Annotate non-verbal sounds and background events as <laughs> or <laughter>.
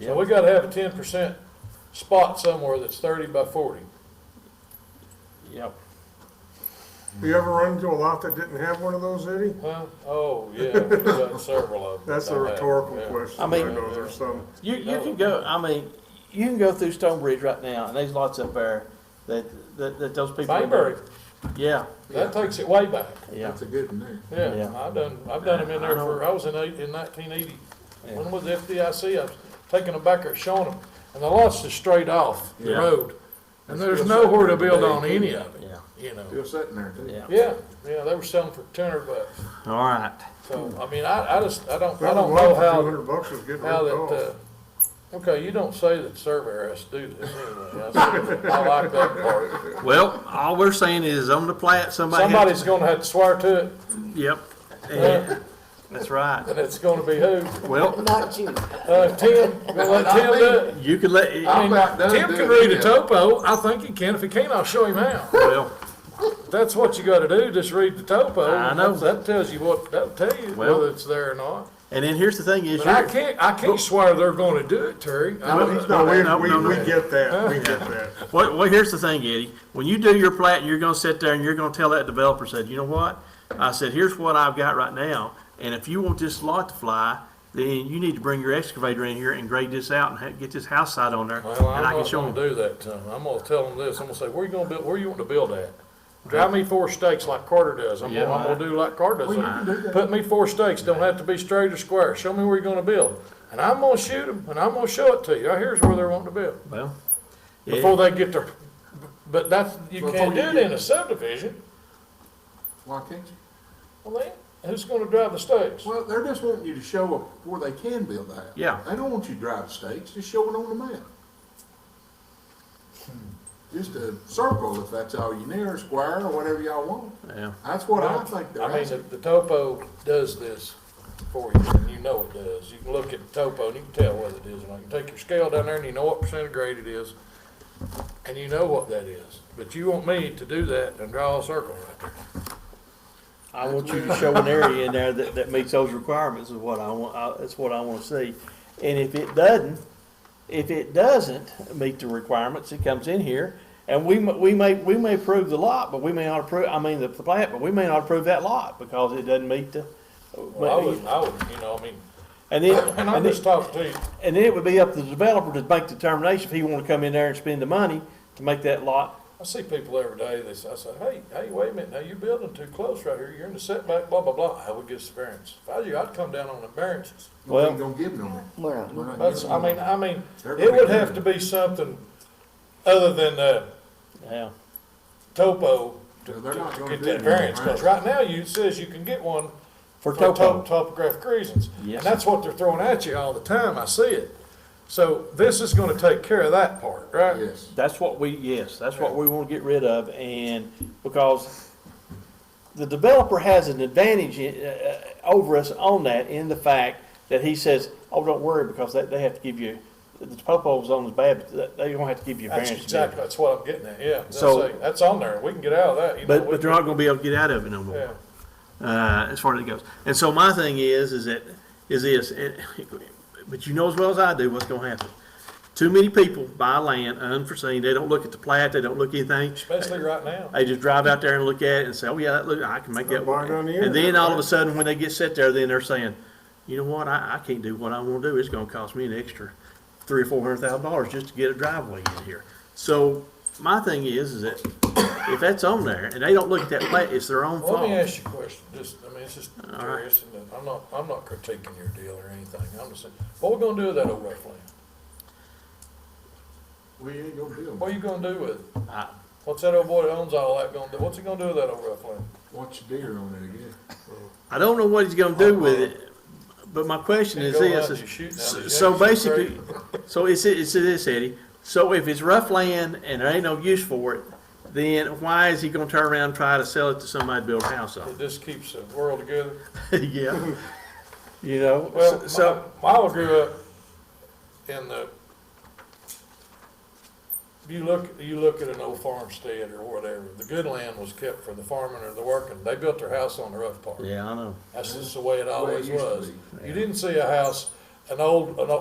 So we gotta have a ten percent spot somewhere that's thirty by forty. Yep. You ever run into a lot that didn't have one of those, Eddie? Huh? Oh, yeah, we've done several of them. That's a I have, rhetorical yeah. question. I I mean- know there's some. You, you can go, I mean, you can go through Stonebridge right now, and there's lots up there that, that, that those people. Bayberry, Yeah, that takes it way back, yeah. That's a good one yeah, Yeah. I've done, I've done them in there for, I was in eight, in nineteen eighty, when was FDIC, I was taking them back there showing them, and the lots is straight off the Yeah. road, and there's nowhere to build on any of it, Yeah, you know. Still sitting there too. yeah. Yeah, yeah, they were selling for ten hundred bucks, All right. so, I mean, I, I just, I don't, I That don't one know for how. 200 bucks is getting Now ripped off. that, uh, okay, you don't say that surveyor has to do this anyway. I I like that part. Well, all we're saying is on the plat, somebody. had- Somebody's gonna have to swear to it, Yep. Yeah, That's right. and it's gonna be who? Well, Not you. Uh, Tim, gonna let Tim do it? you can let, I mean, about done Tim can doing read a it. topo. I think he can. If he can't, I'll show him how. well, That's what you gotta do, just read the topo. I know. That tells you what, that'll tell you Well- whether it's there or not. and then here's the thing is, But I you're, can't, I can't swear they're gonna do it, Terry. I No, don't- he's No, No, we, no, we, no. we get that, <laughs> we get that. Well, well, here's the thing, Eddie. When you do your plat, and you're gonna sit there and you're gonna tell that developer, said, you know what? I said, here's what I've got right now, and if you want this lot to fly, then you need to bring your excavator in here and grade this out and ha- get this house site on there, and Well, I'm I can not show gonna them. do that to them. I'm gonna tell them this. I'm gonna say, where you gonna build, where you want to build at? Drive me four stakes like Carter does. I'm gonna, I'm gonna do like Carter does. Put me four stakes, don't have to be straight or square. Show me where you're gonna build. And I'm gonna shoot them and I'm gonna show it to you. Right here's where they're wanting to build. Well, yeah. Before they get their, but that's, you Before can't do you it get- in a subdivision. Why can't you? Well, then, who's gonna drive the stakes? Well, they're just wanting you to show up where they can build the house. Yeah. They don't want you to drive stakes, just show it on the map. Hmm. Just a circle, if that's all you need, or square, or whatever y'all want. yeah. That's what I think they're I mean, the, asking. the topo does this for you, and you know it does. You can look at the topo and you can tell whether it is or not. You can take your scale down there and you know what percent of grade it is, and you know what that is. But you want me to do that and draw a circle right there. I want you <laughs> to show an area in there that, that meets those requirements is what I want, I, that's what I wanna see. And if it doesn't, if it doesn't meet the requirements, it comes in here, and we, m- we may, we may approve the lot, but we may not approve, I mean, the, the plat, but we may not approve that lot because it doesn't meet the. Well, I would, I would, you know, I mean, And then, <coughs> and I'm and just then, talking to you. and then it would be up to the developer to make the determination if he wanna come in there and spend the money to make that lot. I see people every day, they say, I say, hey, hey, wait a minute, now you're building too close right here, you're in the setback, blah, blah, blah. I would get a variance. If I was you, I'd come down on the variances. We Well, ain't gonna give them We're not. that. We're not That's, giving I them mean, I mean, They're it gonna would be have to be something other than, uh, yeah, topo to, No, they're not to- to gonna get do that that, variance, right. cause right now you, it says you can get one for for top, topo, topographic reasons. And Yes. that's what they're throwing at you all the time, I see it. So this is gonna take care of that part, that. right? Yes. That's what we, yes, that's what we want to get rid of, and because the developer has an advantage uh, uh, over us on that in the fact that he says, oh, don't worry, because they, they have to give you, the topo zone is bad, but they- they're gonna have to give you a That's variance. exactly, that's what I'm getting at, yeah. That's, So- a- that's on there, we can get out of that, you know. But, we but they're not gonna be able to get out of it no can- more. Yeah. uh, as far as it goes. And so my thing is, is that, is this, it, <laughs> but you know as well as I do what's gonna happen. Too many people buy land unforeseen, they don't look at the plat, they don't look at anything. Especially right now. They just drive out there and look at it and say, oh, yeah, that look, I can make that work. Right on the And then internet, all of a right? sudden, when they get set there, then they're saying, you know what, I, I can't do what I wanna do, it's gonna cost me an extra three or four hundred thousand dollars just to get a driveway in here. So, my thing is, is that if that's on there and they don't look at that plat, it's their own fault. Let me ask you a question, just, I mean, it's just curious, and I'm not, I'm not critiquing your deal or anything, I'm just saying, what we gonna do with that old rough land? We ain't gonna build What are you gonna do with it? I- What's that old boy that owns all that gonna do, what's he gonna do with that old rough land? Watch your deer on it again. I don't know what he's gonna do with it, but my question is Uh-huh. Go out this, and is- shoot now, so- you so have to shoot basically, <laughs> so it's, it's this, Eddie, so if it's rough land and there ain't no use for it, then why is he gonna turn around and try to sell it to somebody to build a house on? <laughs> It just keeps the world together. <laughs> Yeah, you know, Well, so, so Milo grew up in the. You look, you look at an old farmstead or whatever. The good land was kept for the farming or the working. They built their house on the rough part. yeah, I know. That's just the way it Way it always used to was. be. You didn't see a house, an old, an old,